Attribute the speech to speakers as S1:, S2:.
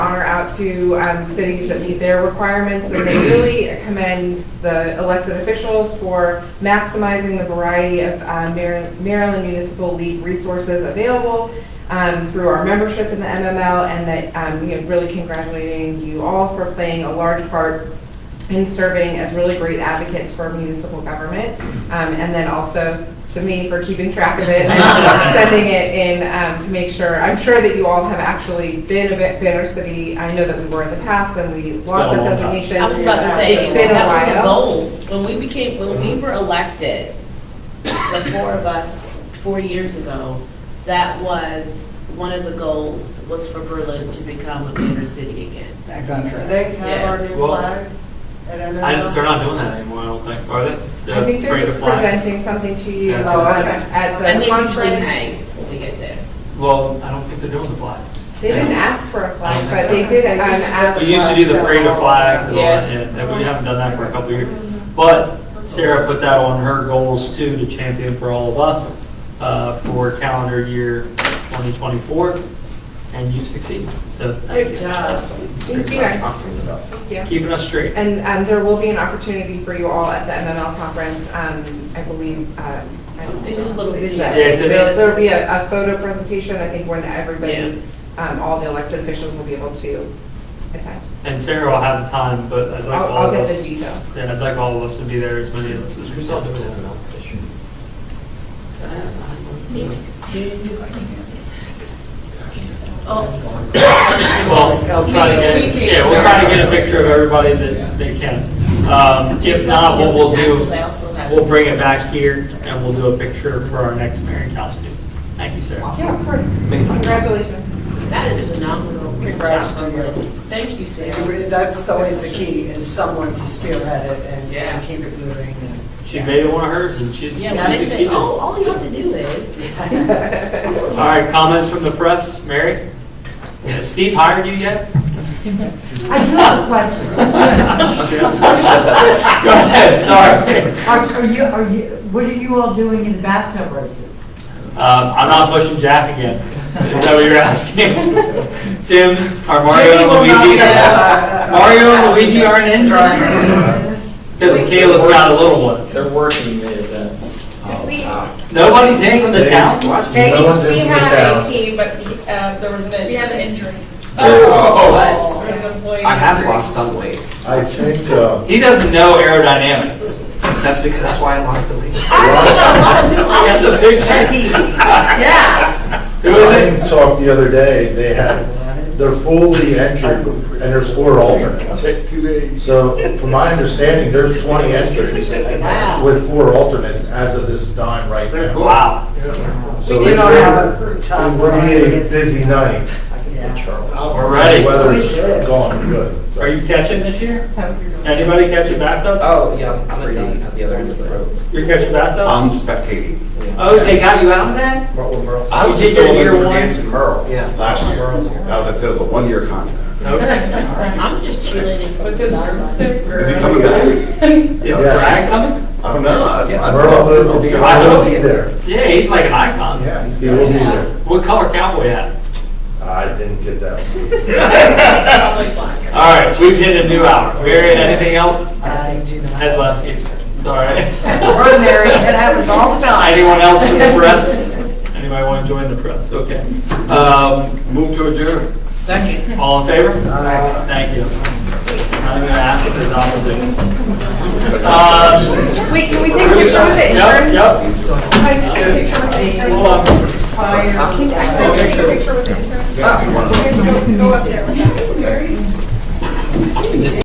S1: out to um, cities that meet their requirements, and they really commend the elected officials for maximizing the variety of uh, Mar- Maryland Municipal League resources available um, through our membership in the MML, and that, um, you know, really congratulating you all for playing a large part in serving as really great advocates for municipal government, um, and then also to me for keeping track of it and sending it in um, to make sure. I'm sure that you all have actually been a bit Banner City. I know that we were in the past and we lost
S2: been a
S1: that
S2: long time.
S1: designation. Um,
S3: I was about to
S1: It's
S3: say,
S1: been a
S3: that
S1: while.
S3: was a goal. When we became, when we were elected, the four of us, four years ago, that was, one of the goals was for Berlin to become a banner city again.
S4: That
S5: Do
S4: contract.
S5: they have our new
S2: Well,
S5: flag at MML?
S2: I, they're not doing that anymore, I don't think, are they?
S1: I think they're
S2: Parade of
S1: just
S2: Flags?
S1: presenting something to you
S2: Yeah.
S1: um, at
S3: And
S1: the
S3: they usually
S1: conference.
S3: hang when we get there.
S2: Well, I don't think they're doing the flag.
S1: They didn't ask for a
S2: I
S1: flag,
S2: don't
S1: but they
S2: think
S1: did
S5: They
S1: um,
S5: used to-
S1: ask.
S2: We used to do the parade of flags and all that,
S3: Yeah.
S2: and and we haven't done that for a couple of years. But Sarah put that on her goals too, to champion for all of us, uh, for calendar year 2024, and you've succeeded, so. thank you.
S3: Good job.
S1: Thank you guys. Thank you.
S2: Keeping us straight.
S1: And um, there will be an opportunity for you all at the MML conference, um, I believe. um, I don't
S3: They do a little video.
S1: Yeah,
S2: Yeah, it's a-
S1: There'll there'll be a a photo presentation, I think, when everybody, um, all the elected officials will be able to attend.
S2: And Sarah will have the time, but I'd like
S1: I'll
S2: all
S1: I'll
S2: of
S1: get the
S2: us,
S1: details.
S2: yeah, I'd like all of us to be there, as many of us as we can.
S3: Oh,
S2: Well, we'll try to get, yeah, we'll try to get a picture of everybody that they can. Um, If not, what we'll do, we'll bring it back here and we'll do a picture for our next mayor and council meeting. Thank you, Sarah.
S1: Yeah, of course. Congratulations.
S3: That is phenomenal.
S4: Congrats to you.
S3: Thank you, Sarah.
S4: That's always the key, is someone to spearhead it and-
S3: Yeah.
S4: and keep it moving. and-
S2: She made it one of hers and she she
S3: Yeah, when they say,
S2: succeeded.
S3: oh,
S2: All
S3: all you have to do is.
S2: right, comments from the press? Mary? Has Steve hired you yet?
S6: I do have a question.
S2: Go ahead, sorry.
S6: Are are you, are you, what are you all doing in the bathtub races?
S2: Um, I'm not pushing Jack again. Is that what you're asking? Tim, are Mario
S4: Jimmy
S2: and
S4: will not
S2: Luigi?
S4: get a- a-
S2: Mario and Luigi aren't in? Because Caleb's got a little one.
S7: They're working the event.
S8: Oh,
S9: We,
S2: Nobody's in from the town?
S7: No one's
S9: we
S7: in the
S9: have a
S7: town.
S9: team, but uh, there was an, we had an injury.
S2: Oh,
S9: There was an employee.
S8: I have
S9: injury.
S8: lost some weight.
S7: I think, uh,
S2: He doesn't know aerodynamics.
S8: That's because that's why I lost the weight.
S2: That's a picture.
S4: Yeah.
S2: Who is
S7: Ryan talked the other day, they had, they're fully entered, and there's four alternates.
S2: it?
S7: So from my understanding, there's 20 entries
S3: Wow.
S7: with four alternates as of this time right now.
S2: Wow.
S7: So
S4: We did
S7: it's
S4: not have
S7: gonna-
S4: a
S7: It
S4: top
S7: will be a
S4: line.
S7: busy night.
S4: Yeah.
S2: We're ready.
S7: The weather's
S4: Yes.
S7: gone good.
S2: Are you catching this year?
S1: That was your-
S2: Anybody catch a bathtub?
S8: Oh, yeah, I'm at the, at the other end of the road.
S2: You're catching bathtub?
S10: uh,
S8: I'm spectating.
S2: Oh, they got you out then?
S10: I was
S2: You
S10: just
S2: did your
S10: filling in
S2: year
S10: for
S2: one?
S10: Nancy Merle
S8: Yeah.
S10: last year. Now that's, it was a one-year contract.
S2: Okay.
S3: I'm just cheerleading for the sideline.
S10: Is he coming back?
S2: Is
S7: Yes.
S2: Brad coming?
S10: I don't know. I- I-
S7: Merle will be,
S2: I
S7: will
S2: hope he
S7: be there.
S2: Yeah, he's like an icon.
S10: Yeah, he's
S7: He will be
S10: good.
S7: there.
S2: What color cowboy hat?
S7: I didn't get that.
S2: All right, we've hit a new hour. Mary, anything else?
S4: I do not.
S2: Head last, sorry.
S4: Ordinary, it happens all the time.
S2: Anyone else in the press? Anybody want to join the press? Okay. Um,
S10: Move to adjourn.
S4: Second.
S2: All in favor? Thank you. Not even gonna ask if there's opposition. Um,
S1: Wait, can we take a picture with it?
S2: Yep, yep.